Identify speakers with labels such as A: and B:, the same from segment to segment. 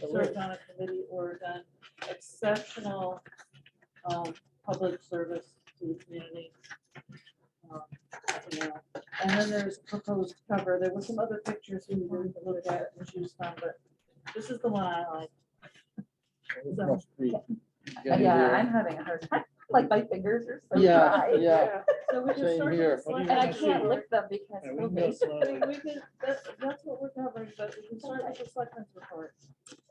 A: served on a committee or done exceptional um, public service to the community. Um, you know, And then there's proposed cover. There were some other pictures we were to look at and choose from, but this is the one I like. So,
B: Yeah, I'm having a hard time, like my fingers are so
C: Yeah,
B: dry.
C: yeah.
A: so we can
C: Same
A: start with
C: here.
A: this
C: What do
A: one.
B: And I can't lick them because
C: Yeah, we
B: we'll
C: can go
B: be-
C: slow.
A: I mean, we can, that's, that's what we're covering, but we can start with the selectmen's report.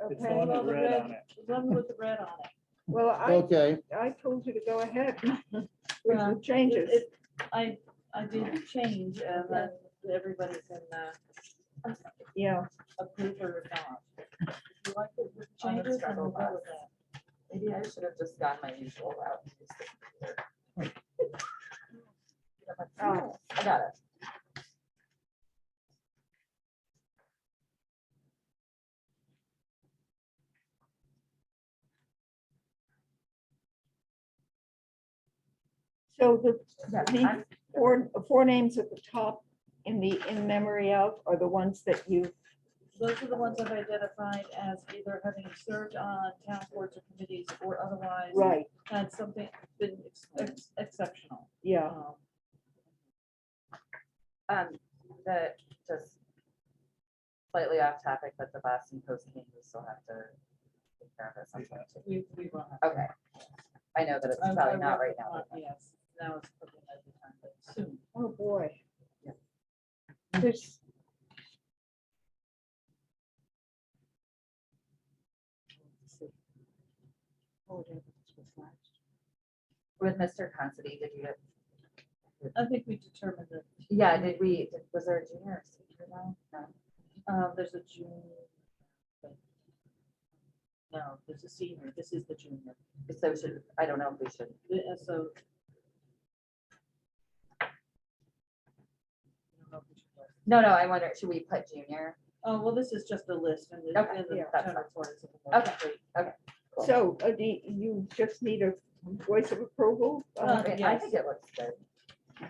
C: It's
D: Okay,
C: the one
A: well,
C: with
A: the
C: red
A: red-
C: on it.
A: The one with the red on it.
D: well, I,
C: Okay,
D: I told you to go ahead with
A: Yeah.
D: the changes.
A: It- it- I, I did change and then everybody can uh,
D: Yeah,
A: approve or not. If you like it with
B: I'm gonna
A: changes, then
B: struggle
A: we'll go
B: with
A: with that.
B: Maybe I should have just gone my usual route. and used the computer. I'm like, "Oh, I got it.
D: so the,
B: Yeah,
D: the
B: I'm-
D: four, four names at the top in the in memory of are the ones that you,
A: Those are the ones I've identified as either having served on town boards or committees or otherwise
D: right,
A: had something been ex- ex- exceptional.
D: yeah.
A: Um,
B: Um, that just slightly off topic, but the Boston Post came, we still have to take care of it sometime. too.
A: We, we will have.
B: Okay. I know that it's
A: I- I
B: probably not
A: will-
B: right now.
A: uh, Yes, now it's probably not the time, but soon.
D: Oh, boy.
B: Yeah.
D: There's.
B: With Mr. Considine, did you?
A: I think we determined that
B: Yeah, did we, was there a junior or senior now? No.
A: Um, there's a junior. but- No, there's a senior, this is the junior,
B: So should, I don't know if we should
A: The- uh, so. I don't know if we should go.
B: No, no, I wonder, should we put junior?
A: Oh, well, this is just a list and the,
B: Okay,
A: and the
D: yeah,
B: that's
A: town
B: fine.
A: report is. Okay.
D: So, uh, do you you just need a voice of approval?
A: Uh,
D: Uh,
B: Okay, I
A: yes.
B: think it looks good.
A: If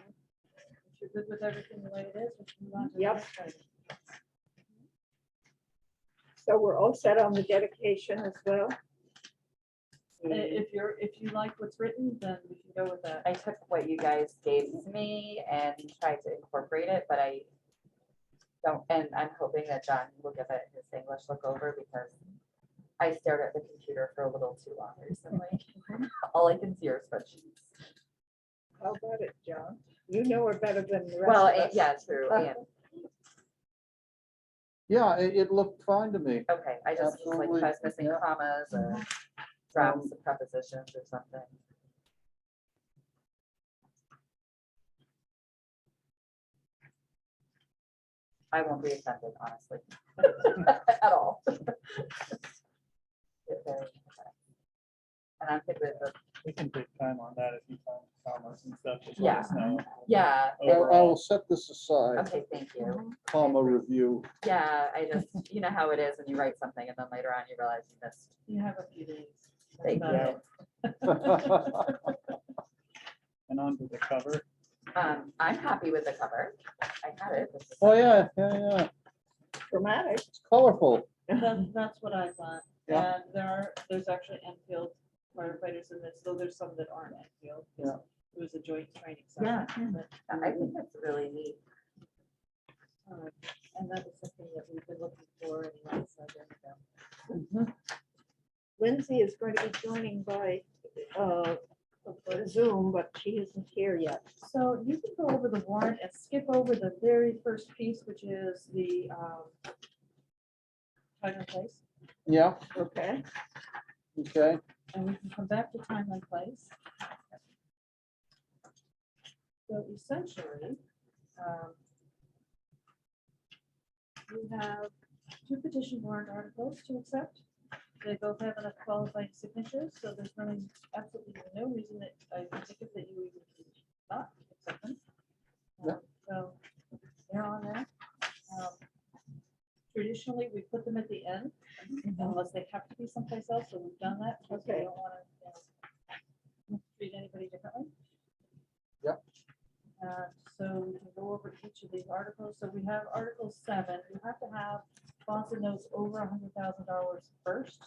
A: you're good with everything the way it is, we can move on to the
D: Yep.
A: next item.
D: So we're all set on the dedication as well?
A: Uh, If you're, if you like what's written, then we can go with that.
B: I took what you guys gave me and tried to incorporate it, but I don't, and I'm hoping that John will give it his English look over because I stared at the computer for a little too long recently. All I can see are spreadsheets.
D: How about it, John? You know her better than the rest of us.
B: Well, and- yeah, true, and,
C: yeah, it, it looked fine to me.
B: okay, I just was like,
C: Absolutely,
B: if I was missing
C: yeah. Mm-hmm.
B: commas or drops of prepositions or something. I won't be offended, honestly, at all. If they're- And I'm good with, the-
E: We can take time on that if you find commas and stuff. just let
B: Yeah.
E: us know.
B: yeah,
C: I I will
E: Overall,
C: set this aside,
B: okay, thank you.
C: comma review.
B: Yeah, I just, you know how it is when you write something and then later on you realize you missed.
A: You have a few days. That's
B: Thank
A: about
B: you.
A: it.
C: Oh,
E: And on to the cover.
B: Um, I'm happy with the cover. I had it. this is-
C: Oh, yeah, yeah, yeah,
D: Dramatic.
C: it's colorful.
A: That's, that's what I thought.
C: Yeah.
A: And there are, there's actually Enfield firefighters in this, though there's some that aren't Enfield. 'cause
C: Yeah.
A: It was a joint training
B: Yeah.
A: session. but,
B: I think that's really neat.
A: um, And that is something that we've been looking for anyway, so there we go.
D: Lindsay is going to be joining by uh, Zoom, but she isn't here yet.
A: So you can go over the warrant and skip over the very first piece, which is the um, time and place.
C: Yeah,
D: Okay.
C: okay,
A: and we can come back to time and place. So essentially, um, we have two petition warrant articles to accept. They both have enough qualified signatures, so there's really absolutely no reason that I can think of that you even could not accept them.
C: Yeah.
A: Um, So they're on there. Um, Traditionally, we put them at the end unless they have to be someplace else, so we've done that. because we
D: Okay.
A: don't wanna, you know, Treat anybody differently.
C: Yep.
A: Uh, So we can go over each of these articles. So we have Article seven, you have to have Sponsored knows over a hundred thousand dollars first.